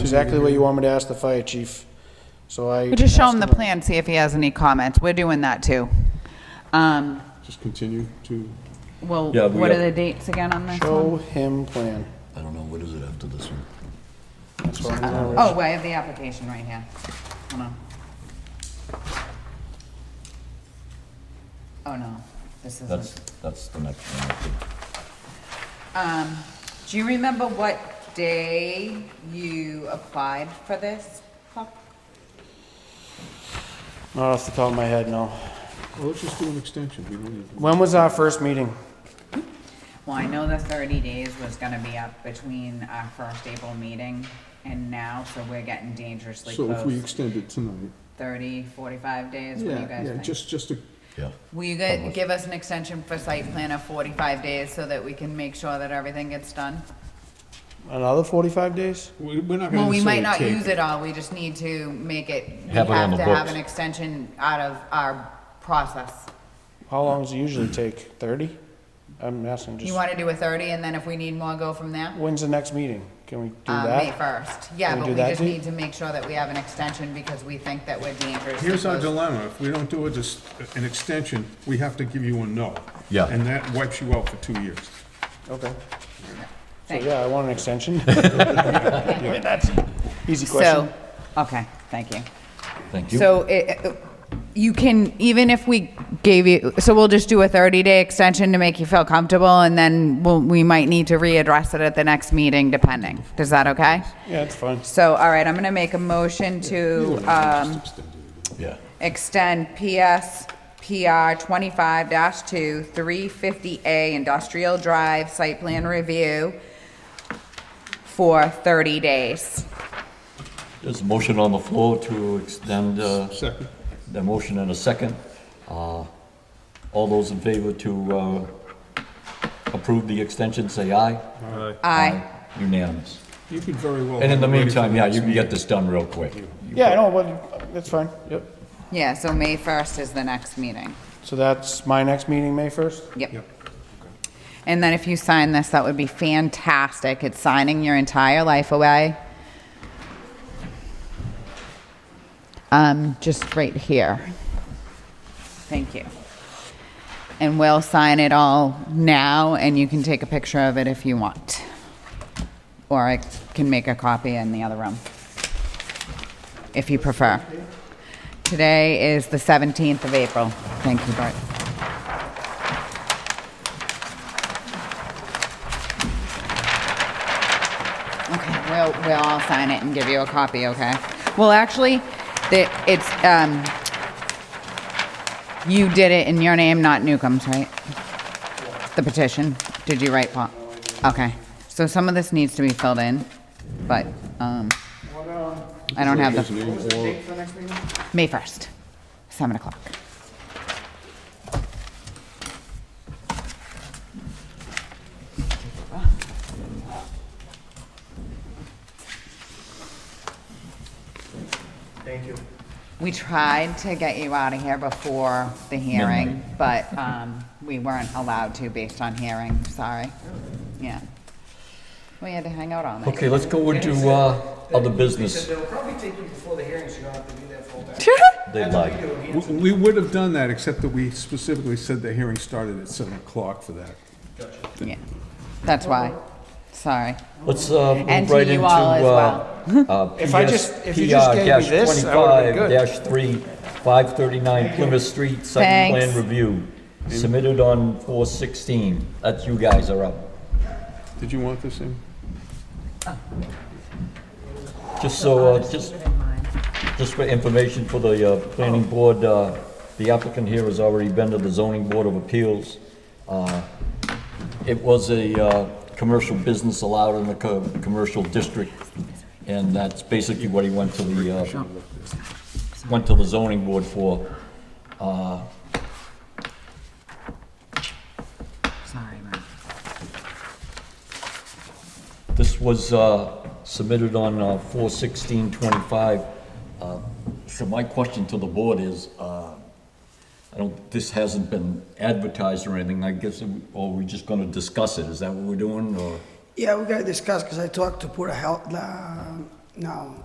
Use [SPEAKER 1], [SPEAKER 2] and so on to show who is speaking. [SPEAKER 1] Exactly what you want me to ask the fire chief, so I.
[SPEAKER 2] We just show him
[SPEAKER 1] asked
[SPEAKER 2] the plan, see if he has any comments. We're doing that too. Um,
[SPEAKER 3] Just continue to,
[SPEAKER 2] well,
[SPEAKER 4] Yeah, we
[SPEAKER 2] what are
[SPEAKER 4] got-
[SPEAKER 2] the dates again on this
[SPEAKER 1] Show
[SPEAKER 2] one?
[SPEAKER 1] him plan.
[SPEAKER 5] I don't know, what is it after this one?
[SPEAKER 1] That's what I'm gonna-
[SPEAKER 2] Oh, I have the application right here. Hold on. Oh, no, this
[SPEAKER 5] That's,
[SPEAKER 2] isn't.
[SPEAKER 5] that's the next one. I think.
[SPEAKER 2] Um, do you remember what day you applied for this? Huck?
[SPEAKER 1] Not off the top of my head, no.
[SPEAKER 3] well, let's just do an extension. We don't need-
[SPEAKER 1] When was our first meeting?
[SPEAKER 2] Well, I know the thirty days was gonna be up between our first April meeting and now, so we're getting dangerously
[SPEAKER 3] So if we
[SPEAKER 2] close.
[SPEAKER 3] extend it tonight,
[SPEAKER 2] 30, 45 days, what do you
[SPEAKER 3] yeah,
[SPEAKER 2] guys
[SPEAKER 3] yeah,
[SPEAKER 2] think?
[SPEAKER 3] just, just to,
[SPEAKER 5] Yeah.
[SPEAKER 2] Will you gu- give us an extension for site plan of 45 days so that we can make sure that everything gets done?
[SPEAKER 1] Another forty-five days?
[SPEAKER 3] we- we're not gonna
[SPEAKER 2] Well, we might not
[SPEAKER 3] necessarily
[SPEAKER 2] use
[SPEAKER 3] take.
[SPEAKER 2] it all, we just need to make it, we have
[SPEAKER 5] Have it on
[SPEAKER 2] to
[SPEAKER 5] the
[SPEAKER 2] have
[SPEAKER 5] books.
[SPEAKER 2] an extension out of our process.
[SPEAKER 1] How long does it usually take? Thirty? I'm asking
[SPEAKER 2] You
[SPEAKER 1] just,
[SPEAKER 2] want to do a 30, and then if we need more, go from there?
[SPEAKER 1] when's the next meeting? Can we do
[SPEAKER 2] Uh, May
[SPEAKER 1] that?
[SPEAKER 2] 1st, yeah,
[SPEAKER 1] Can we
[SPEAKER 2] but
[SPEAKER 1] do
[SPEAKER 2] we
[SPEAKER 1] that,
[SPEAKER 2] just
[SPEAKER 1] Dee?
[SPEAKER 2] need to make sure that we have an extension because we think that we're dangerous.
[SPEAKER 3] Here's our dilemma. If we don't do it, just an extension, we have to give you a no.
[SPEAKER 5] Yeah.
[SPEAKER 3] And that wipes you out for two years.
[SPEAKER 1] Okay. So,
[SPEAKER 2] Thank
[SPEAKER 1] yeah, I want an extension. That's Easy question.
[SPEAKER 2] So, okay, thank you.
[SPEAKER 5] Thank you.
[SPEAKER 2] So it, you can, even if we gave you, so we'll just do a 30-day extension to make you feel comfortable, and then we'll, we might need to readdress it at the next meeting, depending. Is that okay?
[SPEAKER 1] Yeah, it's fine.
[SPEAKER 2] So, all right, I'm going to make a motion to um,
[SPEAKER 5] Yeah.
[SPEAKER 2] extend PS PR 25-2, 350A Industrial Drive Site Plan Review for 30 days.
[SPEAKER 5] There's a motion on the floor to extend, uh,
[SPEAKER 3] Second.
[SPEAKER 5] the motion and a second. Uh, All those in favor to uh, approve the extension, say aye.
[SPEAKER 2] Aye.
[SPEAKER 5] Unanimous.
[SPEAKER 3] You could very well.
[SPEAKER 5] And in the
[SPEAKER 3] have it ready for
[SPEAKER 5] meantime, yeah,
[SPEAKER 3] next
[SPEAKER 5] you can
[SPEAKER 3] meeting.
[SPEAKER 5] get this done real quick.
[SPEAKER 1] Yeah, I know, but that's fine. Yep.
[SPEAKER 2] Yeah, so May 1st is the next meeting.
[SPEAKER 1] So that's my next meeting, May first?
[SPEAKER 2] Yep.
[SPEAKER 3] Yep.
[SPEAKER 2] And then if you sign this, that would be fantastic. It's signing your entire life away. Um, just right here. Thank you. And we'll sign it all now, and you can take a picture of it if you want. Or I can make a copy in the other room, if you prefer. Today is the 17th of April. Thank you, Bart. Okay, we'll, we'll all sign it and give you a copy, okay? Well, actually, the, it's, um, you did it in your name, not Newcomb's, right? The petition, did you write, Paul? Okay, so some of this needs to be filled in, but, um, I don't have the, May 1st, 7 o'clock. We tried to get you out of here before the hearing, but um, we weren't allowed to based on hearing, sorry. Yeah. We had to hang out all night.
[SPEAKER 5] Okay, let's go into uh, other
[SPEAKER 6] They said
[SPEAKER 5] business.
[SPEAKER 6] they'll probably take you before the hearing, so you don't have to be there full time.
[SPEAKER 5] They lied.
[SPEAKER 3] We- We would have done that, except that we specifically said the hearing started at seven o'clock for that.
[SPEAKER 2] Yeah, That's why, sorry.
[SPEAKER 5] Let's uh,
[SPEAKER 2] And
[SPEAKER 5] move
[SPEAKER 2] to
[SPEAKER 5] right
[SPEAKER 2] you
[SPEAKER 5] into
[SPEAKER 2] all as
[SPEAKER 5] uh, uh,
[SPEAKER 1] If I
[SPEAKER 5] PS
[SPEAKER 1] just- if you just gave me this, I would've been good.
[SPEAKER 5] PR-25-3, 539 Plymouth Street, site plan
[SPEAKER 2] Thanks.
[SPEAKER 5] review,
[SPEAKER 1] Mm.
[SPEAKER 5] submitted on 4/16. That's you guys are up.
[SPEAKER 3] Did you want this in?
[SPEAKER 5] Just so, uh, just, just for information for the uh, planning board, uh, the applicant here has already been to the zoning board of appeals. Uh, It was a uh, commercial business allowed in the co- commercial district, and that's basically what he went to the, uh, went to the zoning board for. Uh,
[SPEAKER 2] Sorry, Mark.
[SPEAKER 5] This was uh, submitted on uh, 4/16/25. Uh, So my question to the board is, uh, I don't, this hasn't been advertised or anything, I guess, or we're just going to discuss it, is that what we're doing, or?
[SPEAKER 6] Yeah, we gotta discuss, because I talked to Porter Health, uh, No,